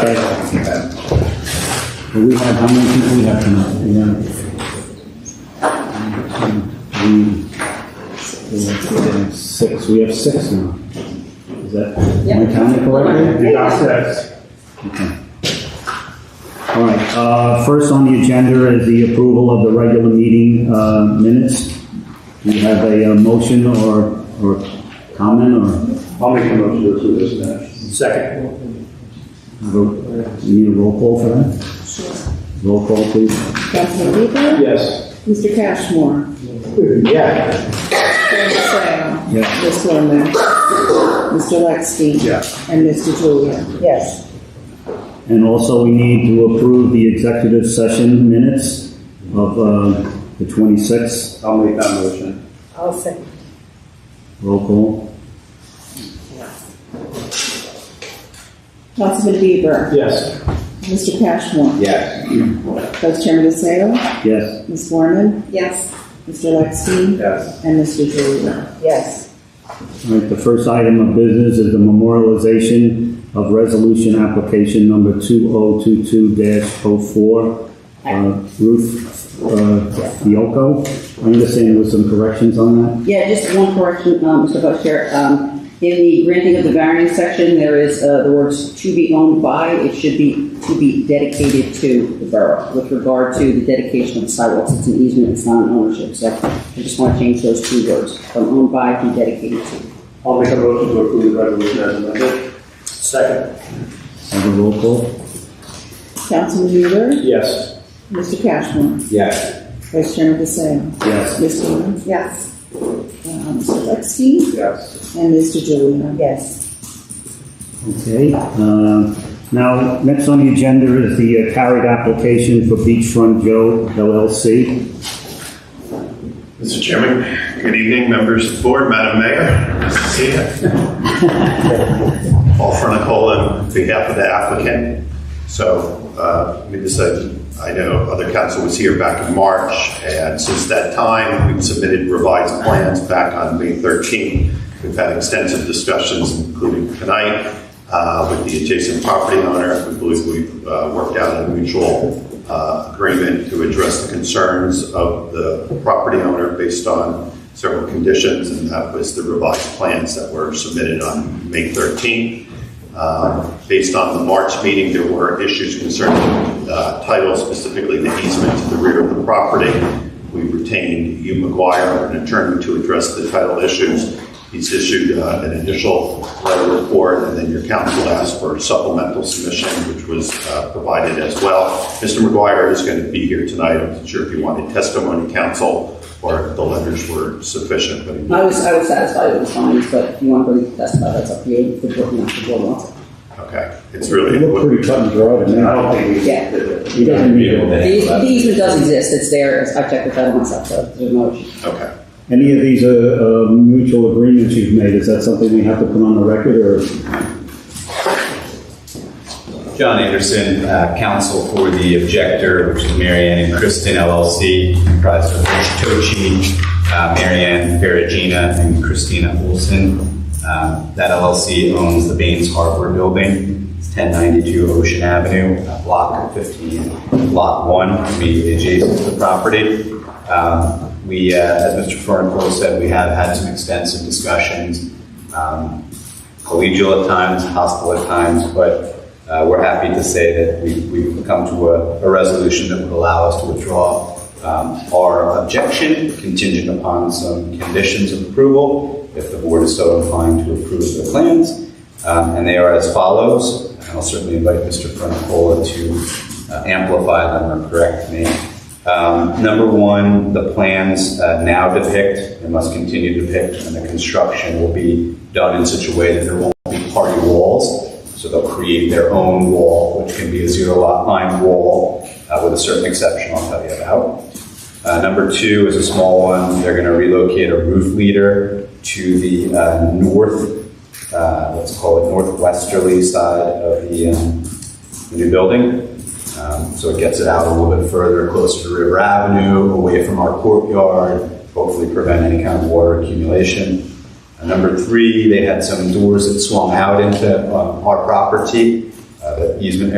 Okay. We have, how many people we have tonight? We have- we- we have, uh, Six, we have six now. Is that, am I counting correctly? You got six. Okay. All right, uh, first on the agenda is the approval of the regular meeting, uh, minutes. Do you have a uh, motion or, or comment or, I'll make a motion to approve this minute. Second. vote? you uh, need a roll call for that? Roll call, please. Councilman Bieber? Yes. Mr. Cashmore? Yeah. Mr. Sarah? Yeah. Ms. Lerman? Mr. Lexstein? Yeah. And Mr. Julia? Yes. And also, we need to approve the executive session minutes of uh, the 26th. I'll make that motion. I'll second. Roll call. Councilman Bieber? Yes. Mr. Cashmore? Yes. Vice Chairman Sarah? Yes. Ms. Lerman? Yes. Mr. Lexstein? Yes. And Mr. Julia? Yes. All right, the first item of business is the memorialization of resolution application number 2022-04. uh, Ruth uh, Fiocco. I understand there were some corrections on that. Yeah, just one correction, um, Mr. Vice Chair. Um, in the granting of the variance section, there is, uh, the words "to be owned by," it should be "to be dedicated to the borough." With regard to the dedication of the sidewalks, it's an easement, it's not an ownership, so I just want to change those two words, from owned by to dedicated to. I'll make a motion to approve the resolution as amended. Second. Have a roll call. Councilman Bieber? Yes. Mr. Cashmore? Yes. Vice Chairman Sarah? Yes. Ms. Lerman? Yes. Mr. Lexstein? Yes. And Mr. Julia? Yes. Okay, uh, now, next on the agenda is the uh, carried application for Beachfront Joe LLC. Mr. Chairman, good evening, members of the board, Madam Mayor, nice to see you. Paul Fronicola on behalf of the applicant. So, uh, we decided, I know other council was here back in March, and since that time, we've submitted revised plans back on May 13. We've had extensive discussions, including tonight, uh, with the adjacent property owner. We believe we've uh, worked out a mutual uh, agreement to address the concerns of the property owner based on several conditions, and that was the revised plans that were submitted on May 13th. Um, Based on the March meeting, there were issues concerning uh, title, specifically the easement to the rear of the property. We retained Hugh McGuire, an attorney, to address the title issues. He's issued uh, an initial letter report, and then your council asked for supplemental submission, which was uh, provided as well. Mr. McGuire is going to be here tonight. I'm not sure if you wanted testimony, counsel, or if the letters were sufficient, but he I was, I was satisfied with the findings, but if you want to really testify, that's up to you, if the board, not the board wants it. Okay, it's really. cut and dry I to don't think we. Yeah. You don't need to- The eas- the easement does exist, it's there, I checked the title myself, so there's no issue. Okay. Any of these uh, uh, mutual agreements you've made, is that something we have to put on the record, or? John Anderson, uh, counsel for the objector, which is Marianne and Kristen LLC, comprised of Rich Tochi, uh, Mary Ann Ferragina, and Christina Olson. Um, That LLC owns the Baines Harbor Building, It's 1092 Ocean Avenue, uh, Block 15, Lot 1, immediately adjacent to the property. Um, We, uh, as Mr. Fernicola said, we have had some extensive discussions. um, collegial at times, hostile at times, but uh, we're happy to say that we- we've come to a a resolution that would allow us to withdraw um, our objection contingent upon some conditions of approval, if the board is so inclined to approve the plans. Um, And they are as follows, and I'll certainly invite Mr. Fronicola to uh, amplify them or correct me. Um, Number one, the plans uh, now depict, and must continue to depict, and the construction will be done in such a way that there won't be party walls. So they'll create their own wall, which can be a zero lot line wall, uh, with a certain exception I'll tell you about. Uh, number two is a small one. They're going to relocate a roof leader to the uh, north, uh, let's call it northwesterly side of the um, the new building. Um, So it gets it out a little bit further, closer to River Avenue, away from our courtyard, hopefully prevent any kind of water accumulation. Uh, Number three, they had some doors that swung out into um, our property. Uh, uh, easement